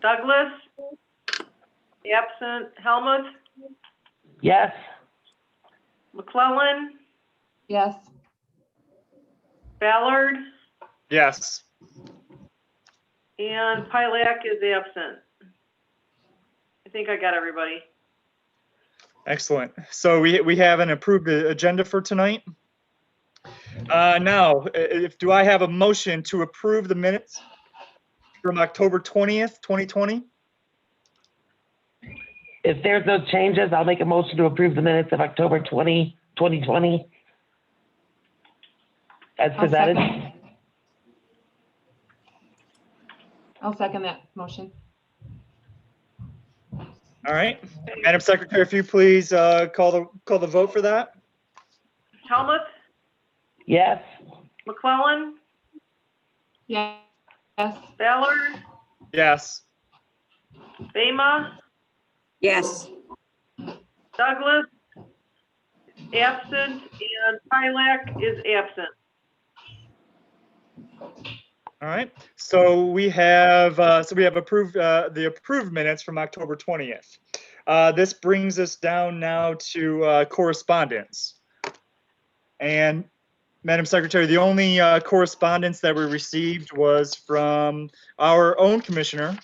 Douglas? Absent. Helmut? Yes. McClellan? Yes. Ballard? Yes. And Pilak is absent. I think I got everybody. Excellent. So we, we have an approved a- agenda for tonight. Uh, Now, i- if, do I have a motion to approve the minutes from October 20th, 2020? If there's no changes, I'll make a motion to approve the minutes of October 20, 2020. As I'll presented. second. I'll second that motion. All right. Madam Secretary, if you please uh, call the, call the vote for that? Helmut? Yes. McClellan? Yes. Yes. Ballard? Yes. Bama? Yes, Douglas? Absent. And Pilak is absent. All right. So we have, uh, so we have approved, uh, the approved minutes from October 20th. Uh, This brings us down now to uh, correspondence. And Madam Secretary, the only uh, correspondence that we received was from our own commissioner,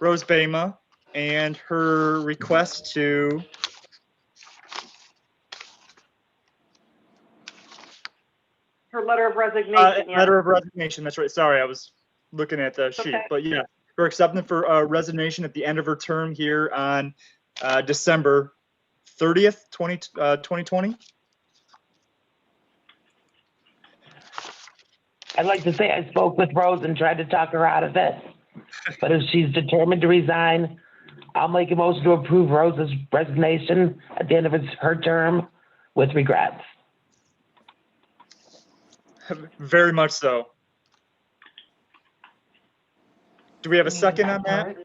Rose Bama, and her request to Her letter of Uh, resignation, yeah. letter of resignation, that's right. Sorry, I was looking at the sheet, okay. but yeah, her acceptance for uh, resignation at the end of her term here on uh, December 30th, 20, uh, 2020. I'd like to say I spoke with Rose and tried to talk her out of it. But if she's determined to resign, I'll make a motion to approve Rose's resignation at the end of his- her term with regrets. Very much so. Do we have a second on that?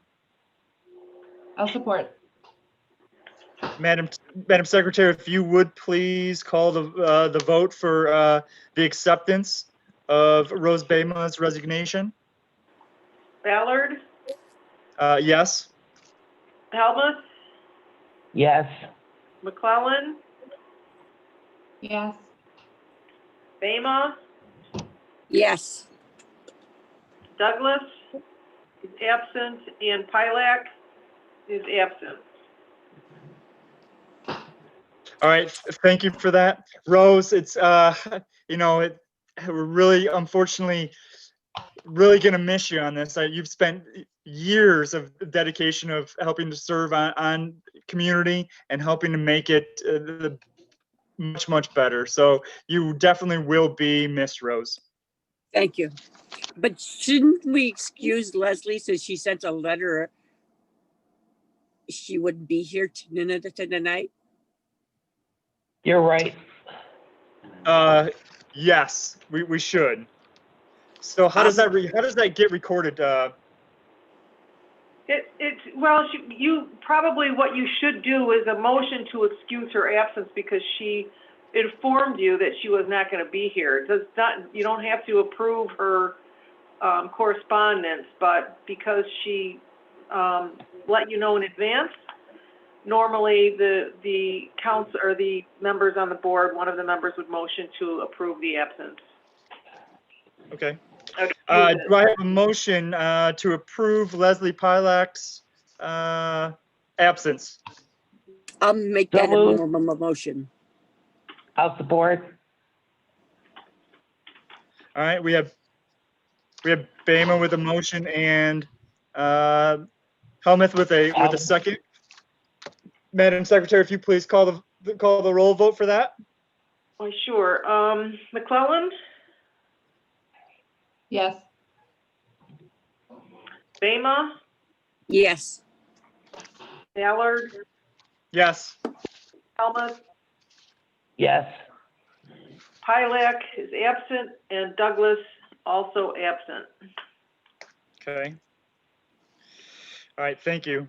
I'll support. Madam, Madam Secretary, if you would please call the, uh, the vote for uh, the acceptance of Rose Bama's resignation. Ballard? Uh, Yes? Helmut? Yes. McClellan? Yes. Bama? yes, Douglas is absent, and Pilak is absent. All right, th- thank you for that. Rose, it's, uh, you know, it, we're really unfortunately, really gonna miss you on this. Uh, You've spent years of dedication of helping to serve on, on community and helping to make it uh, the, much, much better. So you definitely will be missed, Rose. thank you. But shouldn't we excuse Leslie since she sent a letter? She wouldn't be here tonight, tonight? You're right. Uh, yes, we, we should. So how does that, re- how does that get recorded, uh, It, it's, well, she- you, probably what you should do is a motion to excuse her absence because she informed you that she was not gonna be here. It Does not, you don't have to approve her, um, correspondence, but because she, um, let you know in advance, normally the, the council, or the members on the board, one of the members would motion to approve the absence. okay? Okay. Uh, do I have a motion, uh, to approve Leslie Pilak's, uh, absence? I'll make that a Double. mo- mo- mo- motion. I'll support. All right, we have, we have Bama with a motion and, uh, Helmuth with a, with a Helmuth. second. Madam Secretary, if you please call the- the, call the roll vote for that? Well, Oh, sure. Um, McClellan, Yes. Bama, Yes, Ballard, Yes, Helmut, Yes. Pilak is absent, and Douglas also absent. okay. All right, thank you.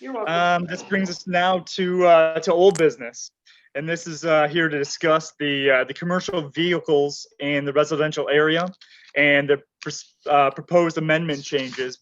You're welcome. Um, this brings us now to, uh, to old business. And this is, uh, here to discuss the, uh, the commercial vehicles in the residential area and the, pers- uh, proposed amendment changes